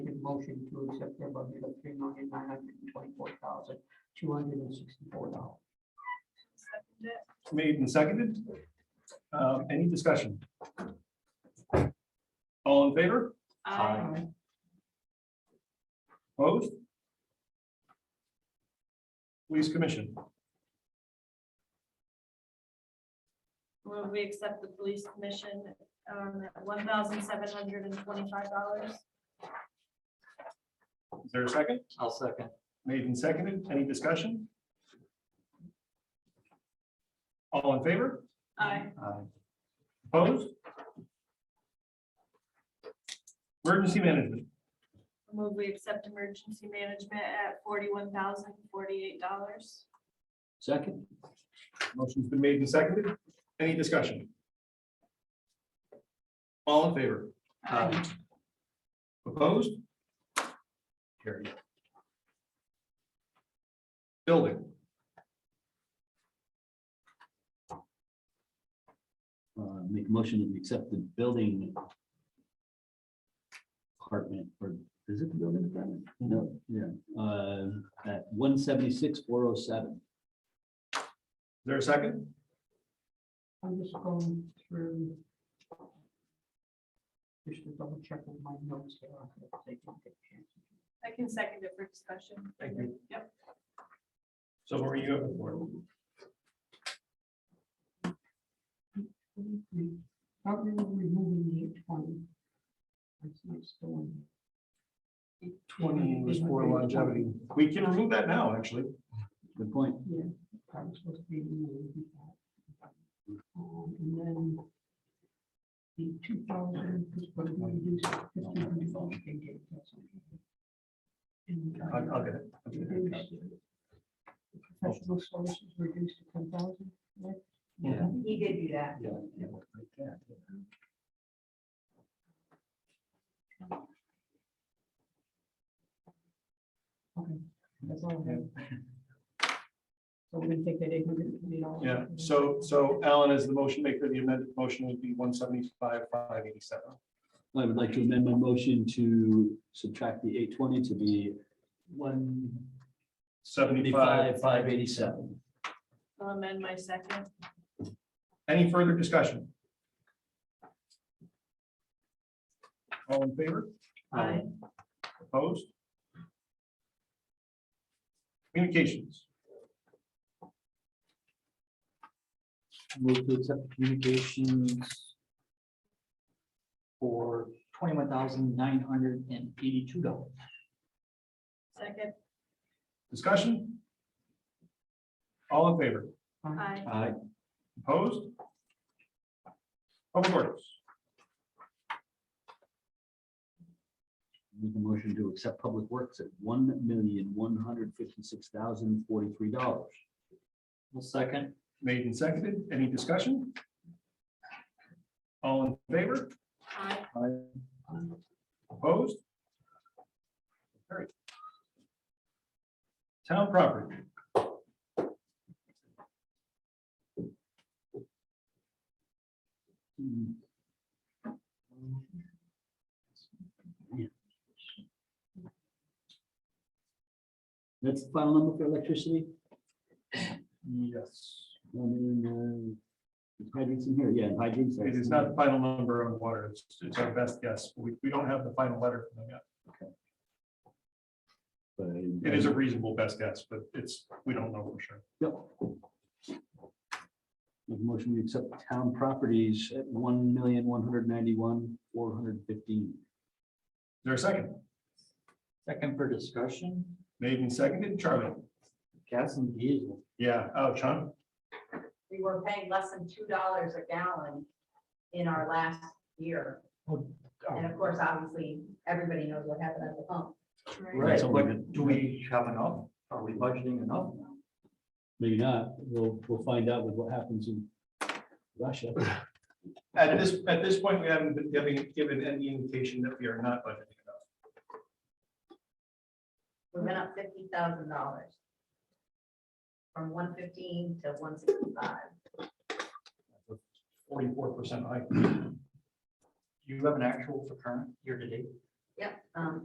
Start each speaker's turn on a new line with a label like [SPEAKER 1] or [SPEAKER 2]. [SPEAKER 1] motion to accept their budget of three million nine hundred and twenty-four thousand two hundred and sixty-four dollars.
[SPEAKER 2] Second it.
[SPEAKER 3] Made and seconded. Uh, Any discussion? All in favor?
[SPEAKER 2] Aye.
[SPEAKER 3] Opposed? Police Commission,
[SPEAKER 2] Will we accept the police commission, um, at one thousand seven hundred and twenty-five dollars?
[SPEAKER 3] is there a second?
[SPEAKER 4] I'll second.
[SPEAKER 3] Made and seconded. Any discussion? All in favor?
[SPEAKER 2] Aye.
[SPEAKER 4] Aye.
[SPEAKER 3] Opposed? Emergency Management,
[SPEAKER 2] Will we accept emergency management at forty-one thousand forty-eight dollars?
[SPEAKER 4] Second?
[SPEAKER 3] motion's been made and seconded. Any discussion? All in favor?
[SPEAKER 4] Aye.
[SPEAKER 3] Opposed? Carried. Building,
[SPEAKER 4] Uh, Make a motion to accept the building department, or is it the building department? No, yeah, uh, at one seventy-six, four oh seven.
[SPEAKER 3] is there a second?
[SPEAKER 1] I'm just going through. Just to double check with my notes here. I could have taken a picture.
[SPEAKER 2] I can second it for discussion.
[SPEAKER 3] Thank you.
[SPEAKER 2] Yep.
[SPEAKER 3] So what were you up for?
[SPEAKER 1] How are we removing the eight twenty? That's not still in. Eight
[SPEAKER 3] Twenty was for longevity. We can remove that now, actually.
[SPEAKER 4] Good point.
[SPEAKER 1] Yeah, that was supposed to be. removed before. Um, And then. The two thousand is going to be reduced. to 1500. And,
[SPEAKER 3] I'll,
[SPEAKER 1] uh,
[SPEAKER 3] I'll get it. I'll get it.
[SPEAKER 1] reduced- Professional services reduced to ten thousand.
[SPEAKER 4] Yeah.
[SPEAKER 1] He did do that.
[SPEAKER 4] Yeah. yeah, like that.
[SPEAKER 1] Okay, that's all I have. So we're gonna take that eight hundred and twenty dollars.
[SPEAKER 3] Yeah, so, so Alan, as the motion maker, the amended motion would be one seventy-five, five eighty-seven.
[SPEAKER 4] I would like to amend my motion to subtract the eight twenty to be one
[SPEAKER 3] Seventy-five.
[SPEAKER 4] seventy-five, five eighty-seven.
[SPEAKER 2] I'll amend my second.
[SPEAKER 3] Any further discussion? All in favor?
[SPEAKER 2] Aye.
[SPEAKER 3] Opposed? Communications,
[SPEAKER 4] Move to accept communications for twenty-one thousand nine hundred and eighty-two dollars.
[SPEAKER 2] Second.
[SPEAKER 3] discussion? All in favor?
[SPEAKER 2] Aye.
[SPEAKER 4] Aye.
[SPEAKER 3] Opposed? Public works,
[SPEAKER 4] Make a motion to accept public works at one million one hundred fifty-six thousand forty-three dollars. Well, second.
[SPEAKER 3] made and seconded, any discussion? All in favor?
[SPEAKER 2] Aye.
[SPEAKER 3] Opposed? Carried. Town property,
[SPEAKER 4] That's the final number for electricity?
[SPEAKER 3] yes,
[SPEAKER 4] I mean, uh, hydrants in here, yeah, hydrants.
[SPEAKER 3] it is not the final number on water, it's, it's our best guess, we, we don't have the final letter from them yet.
[SPEAKER 4] but uh, I-
[SPEAKER 3] It is a reasonable best guess, but it's, we don't know for sure.
[SPEAKER 4] Yep. Make a Motion, we accept town properties at one million, one hundred ninety-one, four hundred fifteen.
[SPEAKER 3] Is there a second?
[SPEAKER 4] Second for discussion,
[SPEAKER 3] Made and seconded, Charlie?
[SPEAKER 4] gas and diesel.
[SPEAKER 3] Yeah, oh, Sean,
[SPEAKER 5] we were paying less than two dollars a gallon in our last year.
[SPEAKER 4] Oh, oh.
[SPEAKER 5] And of course, obviously, everybody knows what happened at the pump.
[SPEAKER 4] Right,
[SPEAKER 6] That's all
[SPEAKER 4] but
[SPEAKER 6] we did.
[SPEAKER 4] do we
[SPEAKER 6] have enough? Are we budgeting enough?
[SPEAKER 4] Maybe not, we'll, we'll find out with what happens in Russia.
[SPEAKER 3] at this, at this point, we haven't been giving, given any indication that we are not budgeting enough.
[SPEAKER 5] We went up fifty thousand dollars. From one fifteen to one sixty-five.
[SPEAKER 3] Forty-four percent hike.
[SPEAKER 6] Do you have an actual for current year to date?
[SPEAKER 5] Yep, um,